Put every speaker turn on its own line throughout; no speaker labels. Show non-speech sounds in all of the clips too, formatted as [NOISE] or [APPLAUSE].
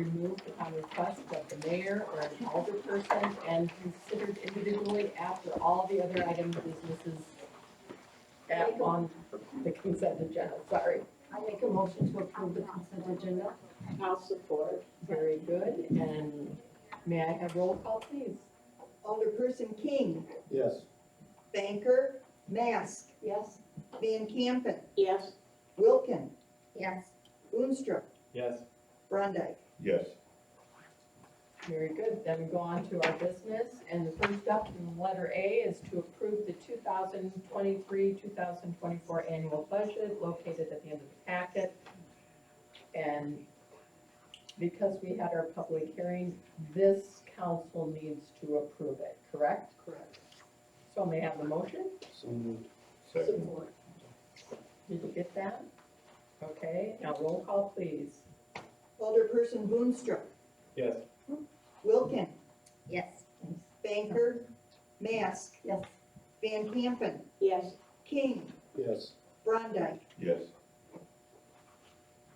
removed upon request of the mayor or an alderperson and considered individually after all the other items businesses at, on the consent agenda, sorry.
I make a motion to approve the consent agenda.
I'll support.
Very good, and may I have roll call, please?
Alderperson King,
Yes.
Banker, Mask,
Yes?
Van Campen,
Yes.
Wilkin,
Yes.
Boonstra,
Yes.
Brondike.
Yes.
Very good, then we go on to our business, and the first up in letter A is to approve the two thousand twenty-three, two thousand twenty-four annual budget located at the end of the packet. And because we had our public hearing, this council needs to approve it, correct?
Correct.
So may I have the motion?
So moved.
Second.
Did you get that? Okay, now roll call, please.
Alderperson Boonstra,
Yes.
Wilkin,
Yes.
Banker, Mask,
Yes.
Van Campen,
Yes.
King,
Yes.
Brondike.
Yes.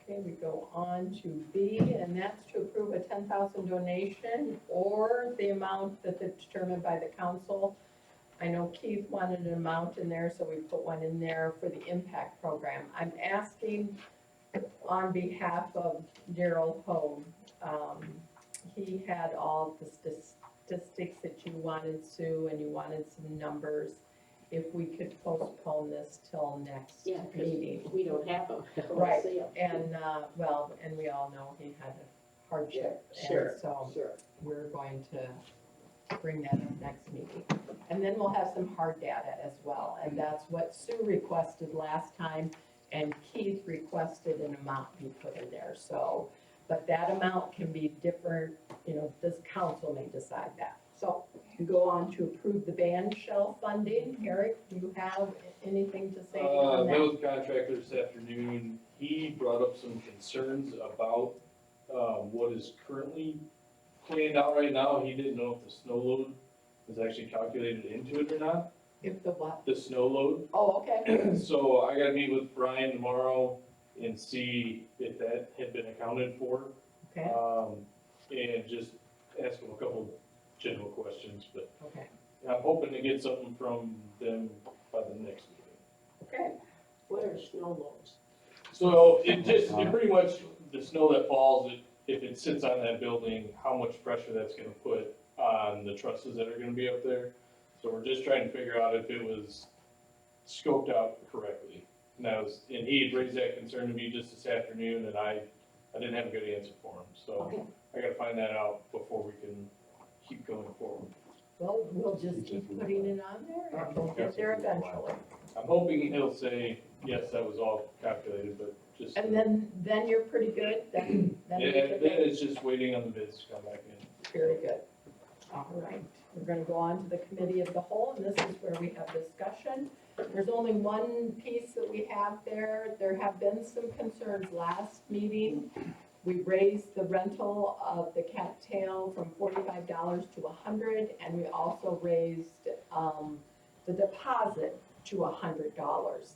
Okay, we go on to B, and that's to approve a ten thousand donation or the amount that is determined by the council. I know Keith wanted an amount in there, so we put one in there for the impact program. I'm asking on behalf of Daryl Hogue. Um, he had all the statistics that you wanted, Sue, and you wanted some numbers. If we could postpone this till next
Yeah, 'cause-
meeting.
We don't have them.
Right. And, uh, well, and we all know he had a hardship,
Yeah,
and
sure,
so
Sure.
we're going to bring that up next meeting. And then we'll have some hard data as well, and that's what Sue requested last time, and Keith requested an amount be put in there, so. But that amount can be different, you know, this council may decide that. So we go on to approve the band shell funding. Eric, do you have anything to say
Uh,
on
met
that?
with the contractor this afternoon, he brought up some concerns about, uh, what is currently planned out right now, he didn't know if the snow load was actually calculated into it or not,
If the what?
the snow load. [CLEARS THROAT]
Oh, okay.
So I gotta meet with Brian tomorrow and see if that had been accounted for.
Okay,
Um, and just ask him a couple general questions, but
okay,
I'm hoping to get something from them by the next meeting.
okay.
What are snow loads?
So it just, it pretty much, the snow that falls, it- if it sits on that building, how much pressure that's gonna put on the trusses that are gonna be up there. So we're just trying to figure out if it was scoped out correctly. And that was, and he had raised that concern to me just this afternoon, and I, I didn't have a good answer for him,
Okay.
so I gotta find that out before we can keep going forward.
Well, we'll just keep putting it on there and we'll get there eventually.
I'm hoping he'll say, yes, that was all calculated, but just.
And then, then you're pretty good, then, then
Yeah,
you should
then
be
it's just waiting on the bids to come back in.
very good. All right, we're gonna go on to the committee of the whole, and this is where we have discussion. There's only one piece that we have there. There have been some concerns last meeting. We raised the rental of the cattail from forty-five dollars to a hundred, and we also raised, um, the deposit to a hundred dollars.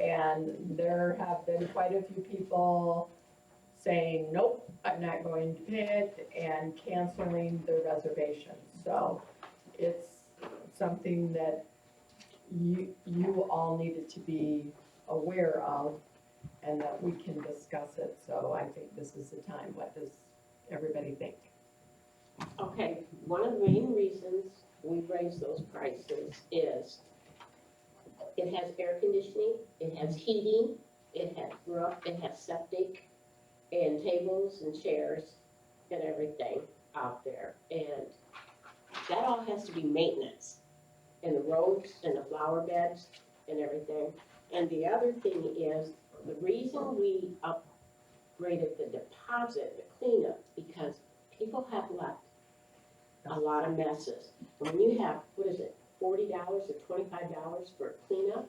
And there have been quite a few people saying, nope, I'm not going to bid, and canceling their reservations. So it's something that you, you all needed to be aware of and that we can discuss it. So I think this is the time. What does everybody think?
Okay, one of the main reasons we raise those prices is it has air conditioning, it has heating, it has roof, it has septic, and tables and chairs and everything out there. And that all has to be maintenance, and the roads and the flower beds and everything. And the other thing is, the reason we upgraded the deposit, the cleanup, because people have left a lot of messes. When you have, what is it, forty dollars or twenty-five dollars for cleanup?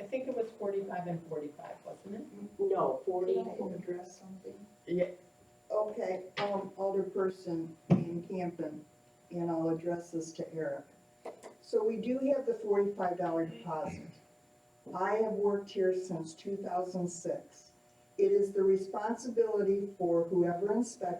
I think it was forty-five and forty-five, wasn't it?
No, forty,
Can I address something?
Yeah.
Okay, um, Alderperson Van Campen, and I'll address this to Eric. So we do have the forty-five dollar deposit. I have worked here since two thousand six. It is the responsibility for whoever inspects